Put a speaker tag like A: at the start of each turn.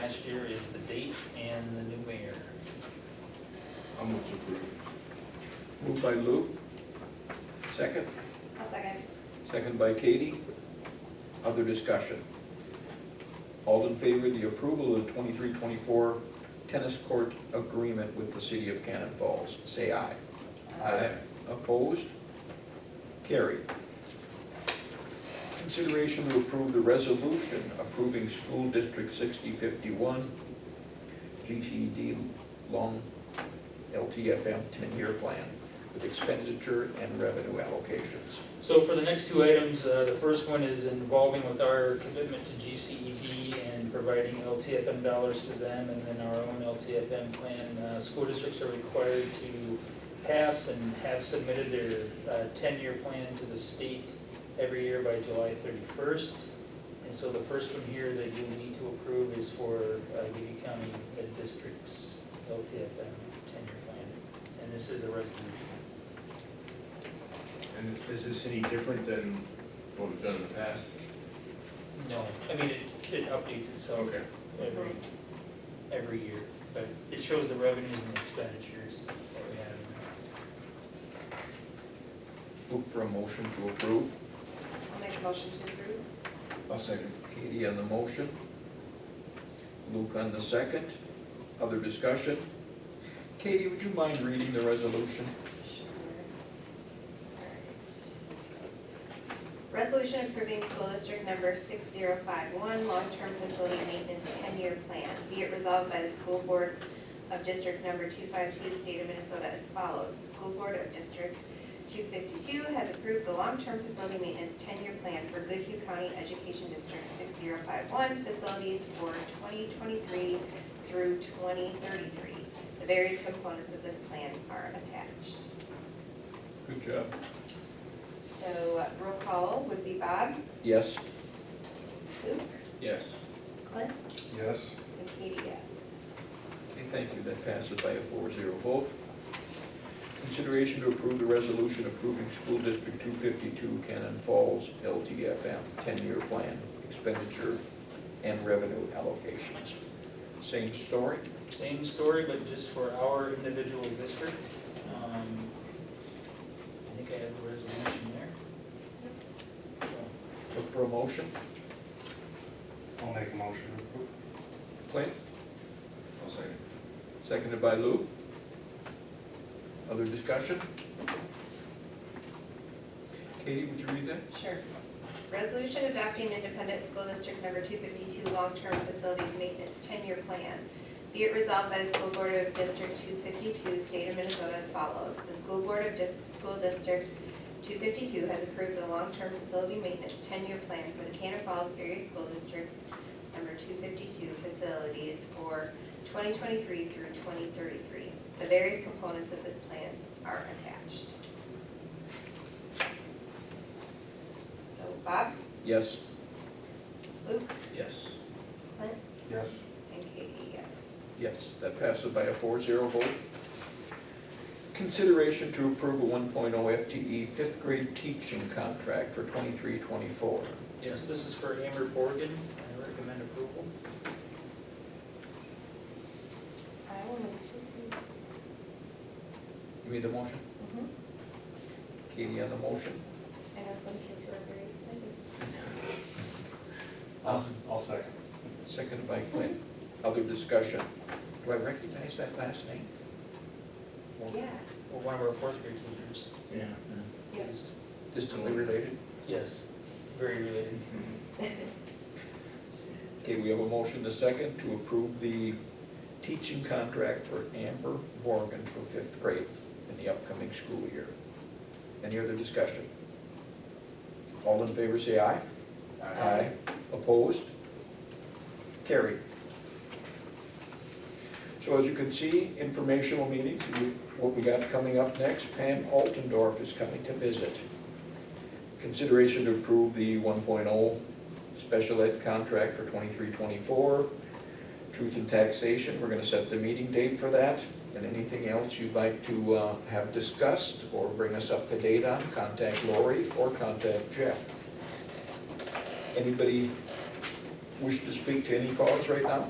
A: next year is the date and the new mayor.
B: I'll move to approve.
C: Moved by Lou. Second?
D: I'll second.
C: Second by Katie. Other discussion? All in favor of the approval of the 23-24 tennis court agreement with the city of Cannon Falls, say aye. Opposed? Carried. Consideration to approve the resolution approving School District sixty fifty-one GTD Long LTFM ten-year plan with expenditure and revenue allocations.
A: So for the next two items, uh, the first one is involving with our commitment to GCEV and providing LTFM dollars to them, and then our own LTFM plan. Uh, School districts are required to pass and have submitted their uh, ten-year plan to the state every year by July thirty-first. And so the first one here that you need to approve is for uh, Union County Ed District's LTFM ten-year plan. And this is a resolution.
B: And is this any different than what we've done in the past?
A: No, I mean, it, it updates itself
B: Okay.
A: every, every year, but it shows the revenues and the expenditures that we have.
C: Look for a motion to approve.
D: I'll make a motion to approve.
B: I'll second.
C: Katie on the motion. Luke on the second. Other discussion? Katie, would you mind reading the resolution?
D: Sure. Alright. Resolution approving school district number six zero five one, long-term facility maintenance ten-year plan. Be it resolved by the school board of district number two five two, state of Minnesota as follows. The school board of district two fifty-two has approved the long-term facility maintenance ten-year plan for Goodhue County Education District six zero five one, facilities for twenty twenty-three through twenty thirty-three. The various components of this plan are attached.
C: Good job.
D: So uh, roll call would be Bob,
C: Yes?
D: Luke,
B: Yes.
D: Clint,
B: Yes.
D: and Katie, yes.
C: Okay, thank you. That passes by a 4-0 vote. Consideration to approve the resolution approving School District 252 Cannon Falls LTFM 10-year plan expenditure and revenue allocations. Same story?
A: Same story, but just for our individual district. Um, I think I have the resolution there.
C: Look for a motion.
E: I'll make a motion to approve.
C: Clint?
B: I'll second.
C: Seconded by Lou. Other discussion? Katie, would you read that?
D: Sure. Resolution adopting independent school district number two fifty-two long-term facilities maintenance ten-year plan. Be it resolved by the school board of district two fifty-two, state of Minnesota as follows. The school board of dis- school district two fifty-two has approved the long-term facility maintenance ten-year plan for the Cannon Falls area school district number two fifty-two facilities for twenty twenty-three through twenty thirty-three. The various components of this plan are attached. So Bob,
C: Yes?
D: Luke,
C: Yes.
D: Clint,
E: Yes.
D: And Katie, yes.
C: Yes, that passes by a 4-0 vote. Consideration to approve a 1.0 FTE E fifth grade teaching contract for 23-24.
A: Yes, this is for Amber Borgen, I recommend approval.
D: I will move to approve.
C: You made the motion? Katie on the motion?
D: I know some kids who are very excited.
E: I'll, I'll second.
C: Seconded by Clint. Other discussion? Do I recognize that last name?
D: Yeah.
A: Well, one of our fourth grade teachers
B: Yeah.
A: is,
C: Distantly related?
A: yes, very related.
C: Okay, we have a motion, a second, to approve the teaching contract for Amber Morgan for fifth grade in the upcoming school year. Any other discussion? All in favor, say aye. Opposed? Carried. So as you can see, informational meetings, we- what we got coming up next, Pam Altendorf is coming to visit. Consideration to approve the 1.0 special ed contract for 2324. Truth and taxation, we're gonna set the meeting date for that. And anything else you'd like to uh, have discussed or bring us up to date on, contact Lori or contact Jeff. Anybody wish to speak to any cause right now?